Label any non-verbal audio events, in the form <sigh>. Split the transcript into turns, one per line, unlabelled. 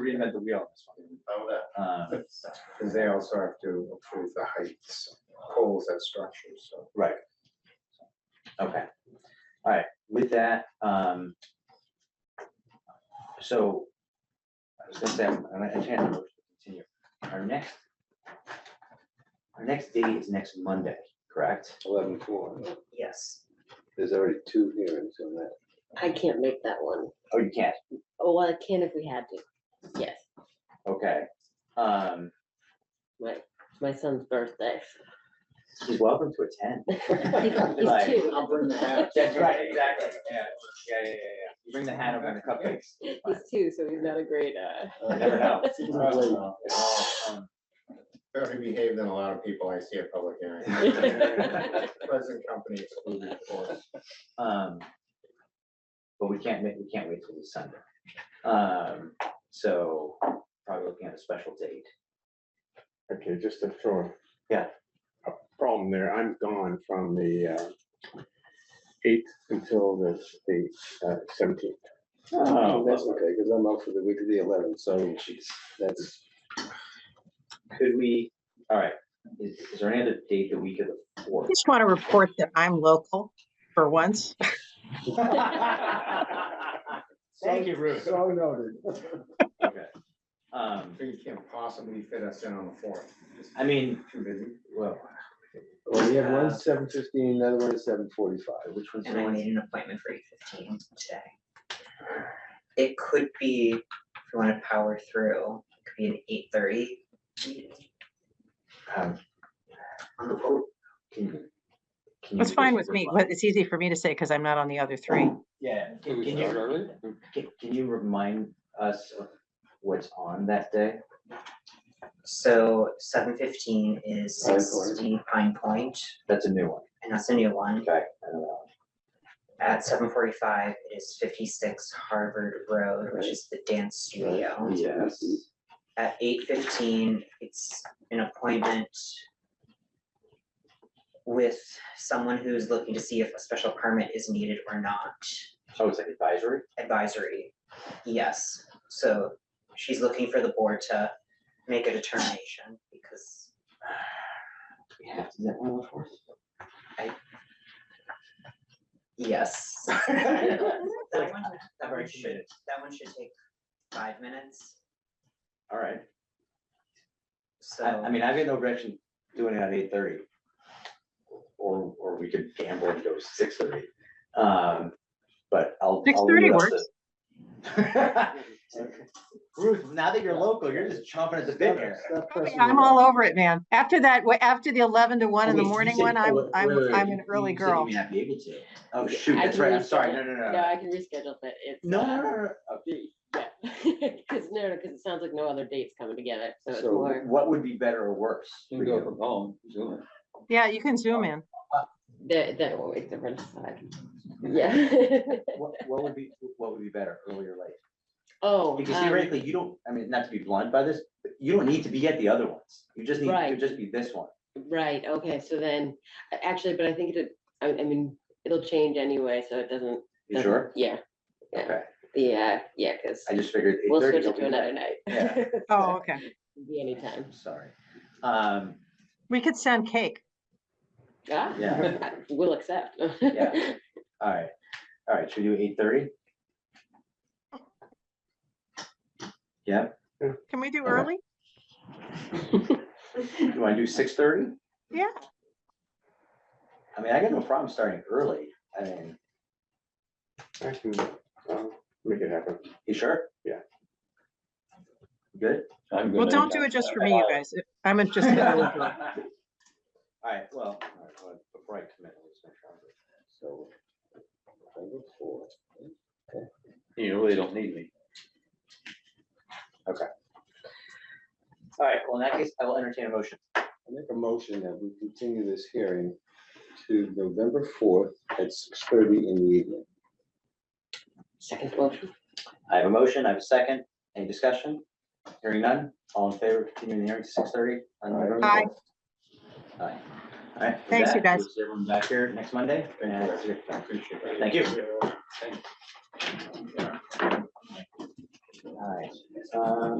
reinvent the wheel on this
How
Oh,
that?
one. Um,
Because they also have to approve the heights, poles at structures, so.
Right. Okay, all right, with that, um, so, I was gonna say, I'm gonna entertain a motion to continue. Our next, our next date is next Monday, correct?
eleven four.
Yes,
There's already two hearings on that.
I can't make that one.
Oh, you can't,
Oh, well, I can if we had to. Yes,
okay. Um,
my, it's my son's birthday.
he's welcome to attend.
He's two.
I'll bring the hat.
That's right, exactly, yeah, yeah, yeah, yeah, yeah. You Bring the hat over and the cupcakes.
He's two, so he's not a great,
<laughs>
uh,
You Never know. Um,
Better behave than a lot of people I see at public <laughs> hearings. Present company excluded, of <laughs> course.
Um, but we can't make, we can't wait till this Sunday. Um, so probably looking at a special date.
Okay, just to throw.
Yeah.
A problem there, I'm gone from the uh, eighth until the, the seventeenth.
Oh, that's okay, because I'm out for the week of the eleventh, so
<laughs>
that's,
Could we, all right, is, is there any other date the week of the
I
fourth?
Just want to report that I'm local for once.
Mm-hmm. Thank you, Ruth.
so noted.
Okay. Um,
So you can't possibly fit us in on the fourth.
I mean,
Too busy.
well,
Well, we have one seven fifteen, another one at seven forty-five.
which one's the
and I
one?
made an appointment for eight fifteen today. It could be, if you wanna power through, it could be an eight thirty.
um, Can can you
That's
do
fine
this
with
for
me,
fun?
but it's easy for me to say because I'm not on the other three.
Yeah.
Can we
can you-
start early?
Can, can you remind us of what's on that day?
So seven fifteen is
Pine Point.
sixteen Pine Point,
That's a new one.
and that's a new one.
Okay. I don't know.
At seven forty-five is fifty-six Harvard Road, which is the dance studio.
Yes.
At eight fifteen, it's an appointment with someone who's looking to see if a special permit is needed or not.
Oh, it's like advisory?
Advisory, yes. So she's looking for the board to make a determination because
We have to do that one on the fourth.
yes. That one that one should, that one should take five minutes,
All right.
so.
I, I mean, I've got no objection doing it at eight thirty. Or, or we could gamble and go six thirty. Um, but I'll. I'll leave
6:30
it up to- <laughs> Ruth, now that you're local, you're just chomping at the bit here.
Oh,
I'm all over it, man. After that, wa- after the 11 to 1 in the
Wait, you
morning
said-
one, I'm,
wait,
I'm,
wait, wait,
I'm
you-
an early
you said you
girl.
may not be able to. Oh, shoot,
I
that's
can
right. I'm sorry.
reschedule.
No, no, no.
No, I can reschedule that. It's,
No, no,
uh,
no, no.
yeah. <laughs> Cause no, no, cause it sounds like no other dates coming together, so it's
So,
more.
What would be better or worse?
You
for
can go
you?
from home, Zoom it.
Yeah, you can zoom in.
That, that will wait different side. Yeah. <laughs>
What, what would be, what would be better, early or late?
Oh.
Because
um,
theoretically, you don't, I mean, not to be blunt by this, but you don't need to be at the other ones. You just need, to
Right.
just be this one.
Right, okay, so then, a- actually, but I think it, I, I mean, it'll change anyway, so it doesn't.
You
doesn't-
sure?
Yeah, yeah.
Okay,
yeah, yeah, because
I just figured.
we'll
8:30
switch it to
you'll be-
another night.
Yeah.
Oh, okay.
Be anytime.
Sorry. Um,
We could send cake.
Ah,
yeah,
I- <laughs> We'll accept.
Yeah. all right, all right, should we do eight thirty? Yeah,
Can we do
Okay.
early?
do I do six thirty?
Yeah.
I mean, I got no problem starting early. I mean,
I can uh, make it happen.
you sure?
Yeah.
Good?
I'm
Well,
good.
don't do it just for me, you guys. I'm just. an
<laughs>
early
All
girl.
right, well, all right, well, before I commit, let's make sure. I'm good.
So, November fourth.
You really don't need me.
All right, well, in that case, I will entertain a motion.
I make a motion that we continue this hearing to November fourth at six thirty in the evening.
<laughs> Second motion.
I have a motion, I have a second, any discussion? Hearing none, all in favor, of continuing the hearing to six thirty?
Aye.
Aye. All right. with
Thanks, you
that,
guys.
we'll see Everyone back here next Monday. and-
Appreciate it.
Thank you. All right, um,